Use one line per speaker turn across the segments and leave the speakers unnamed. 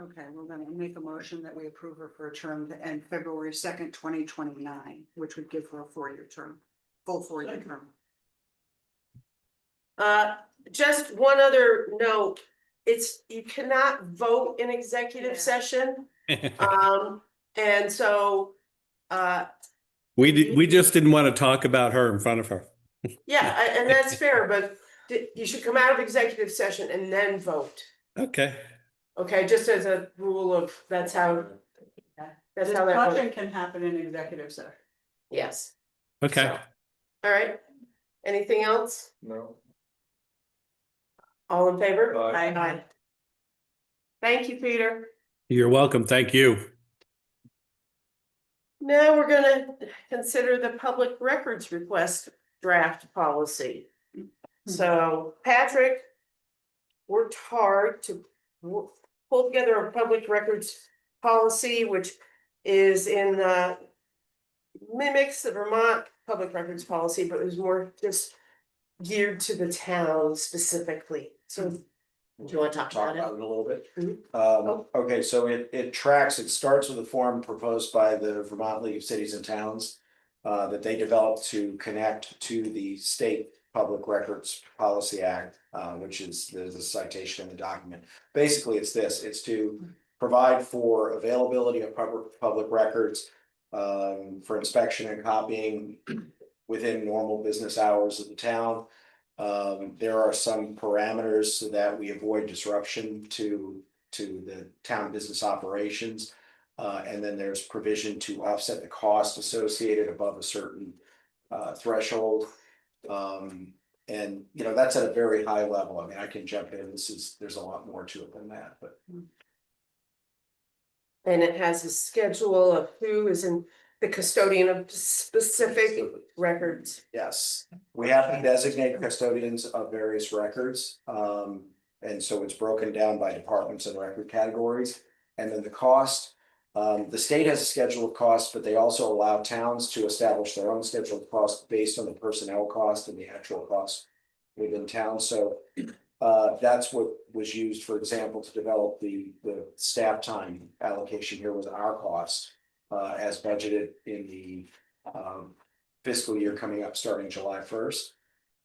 Okay, we're gonna make a motion that we approve her for a term to end February second, twenty twenty-nine, which would give her a four-year term, full four-year term.
Uh, just one other note, it's, you cannot vote in executive
Yeah.
session, um, and so. Uh,
We did, we just didn't want to talk about her in front of her.
yeah, a- and that's fair, but d- you should come out of executive session and then vote.
Okay.
Okay, just as a rule of, that's how. That's how that,
Discussion
works.
can happen in executive session.
yes,
Okay.
all right, anything else?
No.
All in favor?
Aye.
Aye. Thank you, Peter.
You're welcome. Thank you.
Now we're gonna consider the public records request draft policy. So Patrick worked hard to wo- pull together a public records policy, which is in uh mimics the Vermont public records policy, but was more just geared to the town specifically. So do you want to talk
Talk
about it?
about it a little bit.
Mhm.
Um, okay, so it, it tracks, it starts with a form proposed by the Vermont League of Cities and Towns. Uh, that they developed to connect to the state Public Records Policy Act, uh, which is, there's a citation in the document. Basically, it's this, it's to provide for availability of public, public records. um, for inspection and copying within normal business hours of the town. Um, there are some parameters so that we avoid disruption to, to the town business operations. Uh, and then there's provision to offset the cost associated above a certain, uh, threshold. Um, and, you know, that's at a very high level. I mean, I can jump in. This is, there's a lot more to it than that, but.
And it has a schedule of who is in the custodian of specific records.
Yes, we have to designate custodians of various records. Um, and so it's broken down by departments and record categories. And then the cost, um, the state has a schedule of costs, but they also allow towns to establish their own schedule of costs based on the personnel cost and the actual cost within town. So uh, that's what was used, for example, to develop the, the staff time allocation here was our cost uh, as budgeted in the um, fiscal year coming up starting July first.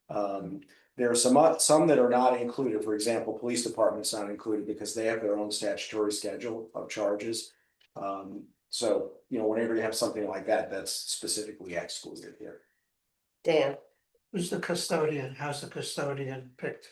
Um, there are some, o- some that are not included, for example, police department's not included because they have their own statutory schedule of charges. Um, so, you know, whenever you have something like that, that's specifically excluded here.
Dan,
Who's the custodian? How's the custodian picked?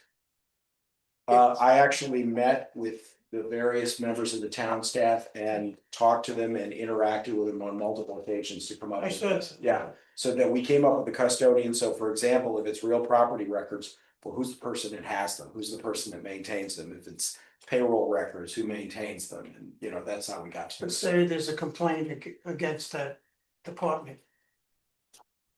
Uh, I actually met with the various members of the town staff and talked to them and interacted with them on multiple occasions to come up.
I
with
said.
Yeah, so that we came up with the custodian, so for example, if it's real property records, well, who's the person that has them, who's the person that maintains them, if it's payroll records, who maintains them, and you know, that's how we got to
But
this.
say there's a complaint ag- against that department.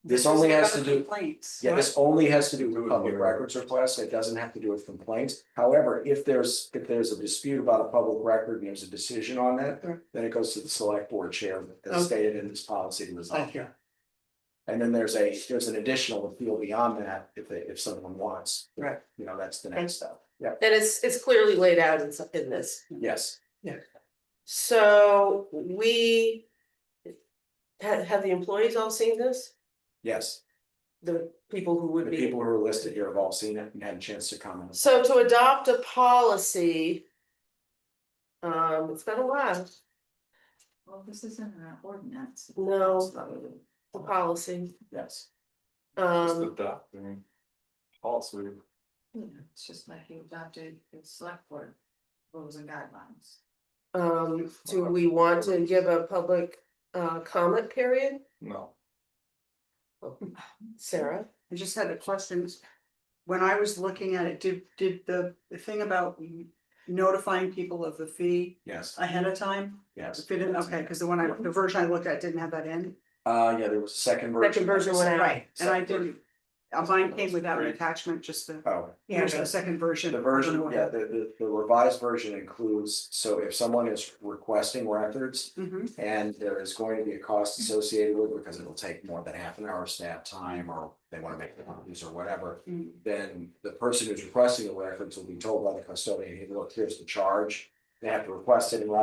This
is
only has
about
to do-
Complaints.
Yeah, this only has to do with public records requests, it doesn't have to do with complaints, however, if there's, if there's a dispute about a public record and there's a decision on that,
Right.
then it goes to the select board chair,
Okay.
as stated in this policy to resolve.
Thank you.
And then there's a, there's an additional appeal beyond that, if they, if someone wants.
Right.
You know, that's the next step, yeah.
and it's, it's clearly laid out in, some- in this.
Yes,
So we have, have the employees all seen this?
yes.
The people who
The
would be.
people who are listed here have all seen it and had a chance to comment.
So to adopt a policy, um, it's been a while,
Well, this isn't an ordinance.
no,
It's not really-
the policy,
Yes.
um,
Also.
yeah, It's just like you adopted the select board rules and guidelines.
um, do we want to give a public uh comment period?
No.
Sarah?
I just had a question. When I was looking at it, did, did the, the thing about notifying people of the fee
Yes,
ahead of time?
yes.
Fit in, okay, because the one I, the version I looked at didn't have that in.
Uh, yeah, there was a second version.
Second version went out.
Right, and I didn't, uh, mine came without an attachment, just the,
Oh,
here's the second version.
the version,
I
yeah,
don't know
the, the, the revised version includes, so if someone is requesting records
what- Mhm.
and there is going to be a cost associated with, it because it'll take more than half an hour of staff time or they want to make the copies or whatever.
Mm.
then the person who's requesting the records will be told by the custodian, hey, look, here's the charge. They have to request it in writing